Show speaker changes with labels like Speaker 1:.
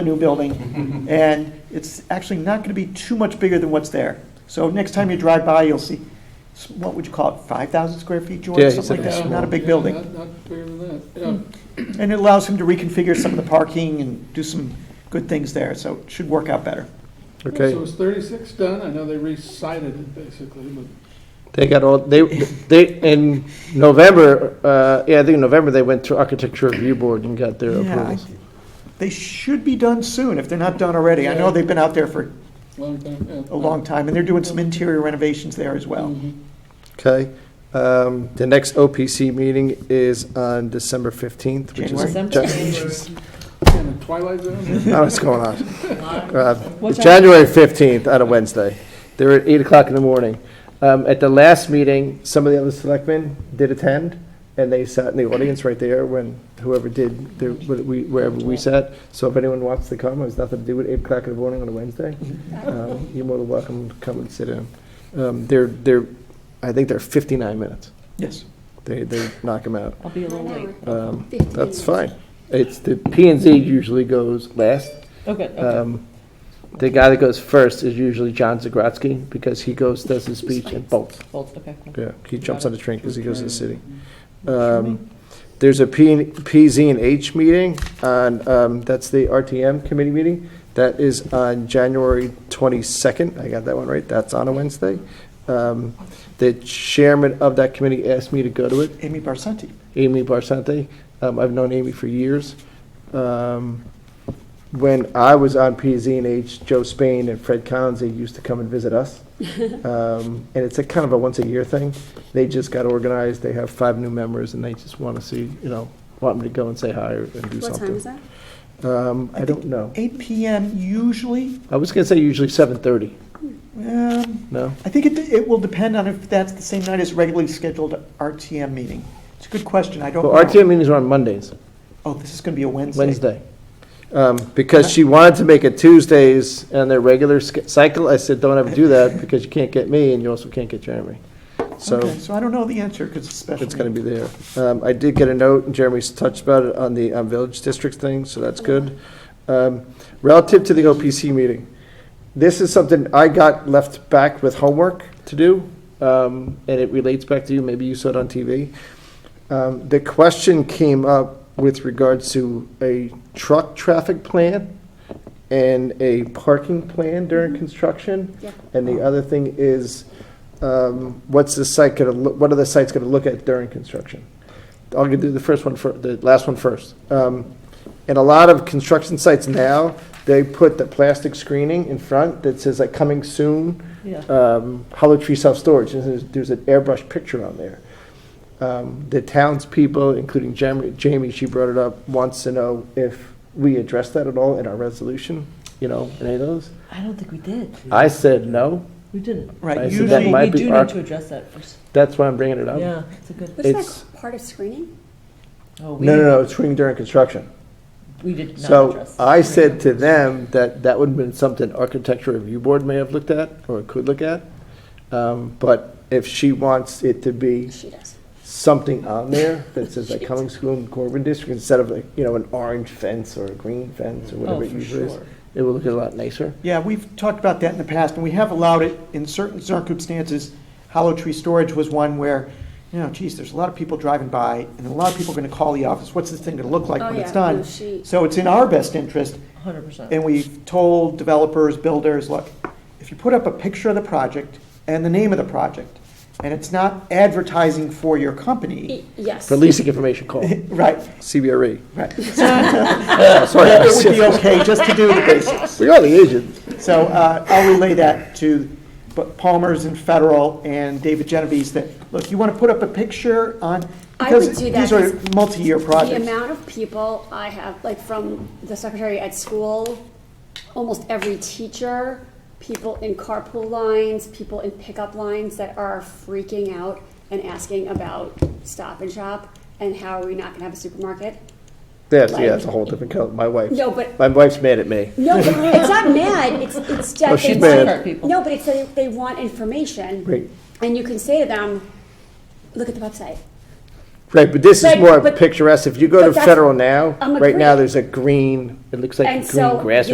Speaker 1: a new building, and it's actually not going to be too much bigger than what's there. So next time you drive by, you'll see, s- what would you call it, 5,000 square feet,
Speaker 2: Yeah,
Speaker 1: George,
Speaker 2: he
Speaker 1: something
Speaker 2: said
Speaker 1: like
Speaker 2: it's
Speaker 1: that, not a big
Speaker 3: Yeah,
Speaker 1: building. Hmm.
Speaker 3: Not not bigger than that, yeah.
Speaker 1: And it allows him to reconfigure some of the parking and do some good things there, so it should work out better.
Speaker 2: Okay,
Speaker 3: So is thirty-six done? I know they recited it basically, but
Speaker 2: they got all, they, they, in November, uh, yeah, I think in November, they went to Architecture Review Board and got their
Speaker 1: Yeah, I-
Speaker 2: approvals.
Speaker 1: They should be done soon, if they're not done already. I know they've been out there for
Speaker 3: long time, yeah.
Speaker 1: a long time, and they're doing some interior renovations there as well.
Speaker 3: Mhm.
Speaker 2: Okay, um, the next OPC meeting is on December fifteenth, which is.
Speaker 1: January.
Speaker 2: Ja-
Speaker 1: Hmm.
Speaker 3: And the Twilight Zone?
Speaker 2: I don't know what's going on? Uh,
Speaker 4: What
Speaker 2: It's
Speaker 4: time?
Speaker 2: January fifteenth, on a Wednesday. They're at eight o'clock in the morning. Um, at the last meeting, some of the other selectmen did attend, and they sat in the audience right there when whoever did, their- wh- we- wherever we sat. So if anyone wants to come, it has nothing to do with eight o'clock in the morning on a Wednesday. Um, You're more than welcome to come and sit in. Um, They're, they're, I think they're fifty-nine minutes.
Speaker 1: Yes.
Speaker 2: They, they knock them out.
Speaker 4: I'll be a little late.
Speaker 2: Um, That's fine. It's, the P and Z usually goes last.
Speaker 4: Oh, good, okay.
Speaker 2: Um, The guy that goes first is usually John Zagrodsky, because he goes, does his speech and bolts.
Speaker 4: Bolt, okay, cool.
Speaker 2: Yeah, he jumps on the train because he goes to the city.
Speaker 1: Sure.
Speaker 2: Um, There's a P, PZ and H meeting on, um, that's the RTM committee meeting. That is on January twenty-second. I got that one right. That's on a Wednesday. Um, The chairman of that committee asked me to go to it.
Speaker 1: Amy Barsanti.
Speaker 2: Amy Barsante. Um, I've known Amy for years. Um, when I was on PZ and H, Joe Spain and Fred Collins, they used to come and visit us. Um, and it's a kind of a once a year thing. They just got organized. They have five new members and they just want to see, you know, want me to go and say hi or, and do
Speaker 5: What
Speaker 2: something.
Speaker 5: time is that?
Speaker 2: Um, I
Speaker 1: I
Speaker 2: don't know.
Speaker 1: 8 PM usually.
Speaker 2: I was going to say usually 7:30.
Speaker 1: Um,
Speaker 2: No.
Speaker 1: I think it, it will depend on if that's the same night as regularly scheduled RTM meeting. It's a good question, I don't know.
Speaker 2: Well, RTM meetings are on Mondays.
Speaker 1: Oh, this is going to be a Wednesday.
Speaker 2: Wednesday. Um, Because she wanted to make it Tuesdays and their regular sch- cycle. I said, don't ever do that because you can't get me and you also can't get Jeremy. So
Speaker 1: Okay, so I don't know the answer because it's a special.
Speaker 2: it's going to
Speaker 1: meeting.
Speaker 2: be there. Um, I did get a note and Jeremy's touched about it on the um, Village District thing, so that's good. Um, Relative to the OPC meeting, this is something I got left back with homework to do. um, And it relates back to you. Maybe you saw it on TV. Um, The question came up with regards to a truck traffic plan and a parking plan during construction.
Speaker 5: Yeah.
Speaker 2: And the other thing is, um, what's the site gonna, loo- what are the sites gonna look at during construction? I'll do the first one fir, the last one first. Um, And a lot of construction sites now, they put the plastic screening in front that says like coming soon,
Speaker 4: Yeah.
Speaker 2: um, Hollow Tree Self-Storage, and there's, there's an airbrush picture on there. Um, The townspeople, including Jamie, Jamie, she brought it up, wants to know if we address that at all in our resolution, you know, any of those?
Speaker 4: I don't think we did.
Speaker 2: I said no,
Speaker 4: We didn't.
Speaker 2: I
Speaker 1: Right,
Speaker 2: said uh, that
Speaker 1: usually,
Speaker 2: might
Speaker 4: We
Speaker 2: be
Speaker 4: do
Speaker 2: our- Oh.
Speaker 4: need to address that first.
Speaker 2: that's why I'm bringing it up.
Speaker 4: Yeah, it's a good.
Speaker 5: Isn't
Speaker 2: It's-
Speaker 5: that part of screening?
Speaker 4: Oh, we
Speaker 2: No, no,
Speaker 4: did-
Speaker 2: no, it's screening during construction.
Speaker 4: We did not
Speaker 2: So
Speaker 4: address.
Speaker 2: I said to them that that would have been something Architecture Review Board may have looked at or could look at. Um, But if she wants it to be
Speaker 5: She does.
Speaker 2: something on there that says like Cummings School and Corbin District instead of like, you know, an orange fence or a green fence or
Speaker 4: Oh,
Speaker 2: whatever it
Speaker 4: for
Speaker 2: usually is,
Speaker 4: sure.
Speaker 2: it will look a lot nicer.
Speaker 1: yeah, we've talked about that in the past, and we have allowed it in certain circumstances. Hollow tree storage was one where, you know, geez, there's a lot of people driving by, and a lot of people are going to call the office, what's this thing going to look like
Speaker 5: Oh,
Speaker 1: when it's
Speaker 5: yeah.
Speaker 1: done?
Speaker 5: No, she-
Speaker 1: So it's in our best interest
Speaker 4: Hundred percent.
Speaker 1: And we've told developers, builders, look, if you put up a picture of the project and the name of the project, and it's not advertising for your company,
Speaker 5: E- Yes.
Speaker 2: For leasing information call,
Speaker 1: right,
Speaker 2: CBRE.
Speaker 1: right.
Speaker 2: Oh,
Speaker 1: It would be
Speaker 2: Sorry.
Speaker 1: okay just to do the basics.
Speaker 2: We are the agent.
Speaker 1: So uh, I'll relay that to Bu- Palmer's and Federal and David Genovese that, look, you want to put up a picture on,
Speaker 5: I would
Speaker 1: because
Speaker 5: do that
Speaker 1: these are
Speaker 5: 'cause
Speaker 1: multi-year
Speaker 5: The
Speaker 1: projects.
Speaker 5: amount of people I have, like from the secretary at school, almost every teacher, people in carpool lines, people in pickup lines that are freaking out and asking about Stop and Shop and how are we not gonna have a supermarket?
Speaker 2: That's, yeah, that's a whole different, co- my wife.
Speaker 5: No, but-
Speaker 2: My wife's mad at me.
Speaker 5: No, but it's not mad, it's, it's that
Speaker 2: Oh,
Speaker 5: they
Speaker 2: she's
Speaker 5: want-
Speaker 2: mad.
Speaker 4: People.
Speaker 5: No, but it's that they want information.
Speaker 2: Right.
Speaker 5: And you can say to them, look at the website.
Speaker 2: Right, but this is
Speaker 5: Right,
Speaker 2: more
Speaker 5: but-
Speaker 2: picturesque. If you go
Speaker 5: but
Speaker 2: to
Speaker 5: that's-
Speaker 2: federal now,
Speaker 5: I'm
Speaker 2: right now,
Speaker 5: agreeing.
Speaker 2: there's a green, it looks like
Speaker 5: And
Speaker 2: green
Speaker 5: so
Speaker 2: grass